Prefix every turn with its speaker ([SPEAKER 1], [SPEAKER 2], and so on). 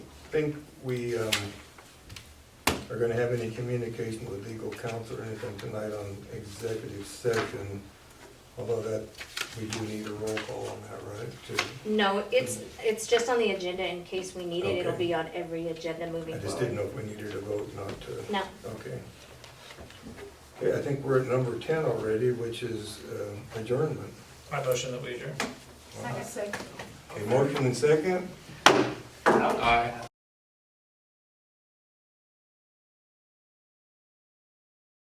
[SPEAKER 1] think we um, are gonna have any communication with legal counsel or anything tonight on executive session, although that, we do need a roll call on that, right? To-
[SPEAKER 2] No, it's, it's just on the agenda in case we need it. It'll
[SPEAKER 1] Okay.
[SPEAKER 2] be on every agenda moving
[SPEAKER 1] I
[SPEAKER 2] forward.
[SPEAKER 1] just didn't know if we needed a vote, not to.
[SPEAKER 2] No,
[SPEAKER 1] Okay. Okay, I think we're at number ten already, which is um, adjournment.
[SPEAKER 3] My motion that we adjourn.
[SPEAKER 4] Second.
[SPEAKER 1] Okay, motion and second?
[SPEAKER 5] Aye.